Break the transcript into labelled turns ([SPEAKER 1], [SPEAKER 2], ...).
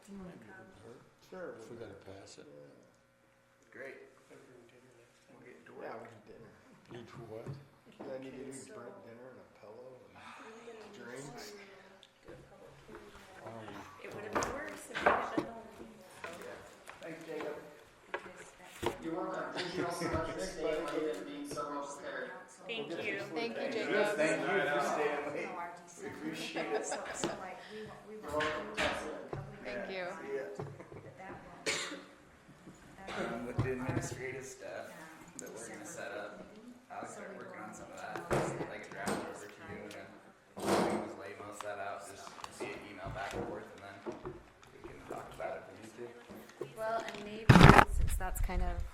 [SPEAKER 1] Sure.
[SPEAKER 2] If we're gonna pass it,
[SPEAKER 3] Great,
[SPEAKER 1] Yeah,
[SPEAKER 3] we'll get to work.
[SPEAKER 1] we can dinner. I
[SPEAKER 2] need to what?
[SPEAKER 1] need to do
[SPEAKER 4] Okay, so-
[SPEAKER 1] burnt dinner and a pillow and Drinks.
[SPEAKER 4] It
[SPEAKER 2] Um,
[SPEAKER 4] would have been worse if I had been home.
[SPEAKER 3] Thanks, Jacob.
[SPEAKER 5] You weren't gonna appreciate so much this day later than being so much scared.
[SPEAKER 4] Thank you.
[SPEAKER 6] Thank you,
[SPEAKER 3] Yes,
[SPEAKER 6] Jacob.
[SPEAKER 3] thank you for staying late. We appreciate it.
[SPEAKER 4] So, so like, we won't, we
[SPEAKER 5] You're
[SPEAKER 4] won't.
[SPEAKER 5] welcome, Jessica.
[SPEAKER 6] Thank you.
[SPEAKER 3] See ya.
[SPEAKER 4] But that won't be- that
[SPEAKER 3] Um,
[SPEAKER 4] won't
[SPEAKER 3] with
[SPEAKER 4] be
[SPEAKER 3] the
[SPEAKER 4] our,
[SPEAKER 3] administrative stuff
[SPEAKER 4] um,
[SPEAKER 3] that we're gonna
[SPEAKER 4] December
[SPEAKER 3] set up,
[SPEAKER 4] meeting.
[SPEAKER 3] I'll start working on some of that, like a draft over to you and then we can lay most of that out, just see an email back and forth and then we can talk about it if we need to.
[SPEAKER 4] Well, and maybe since that's kind of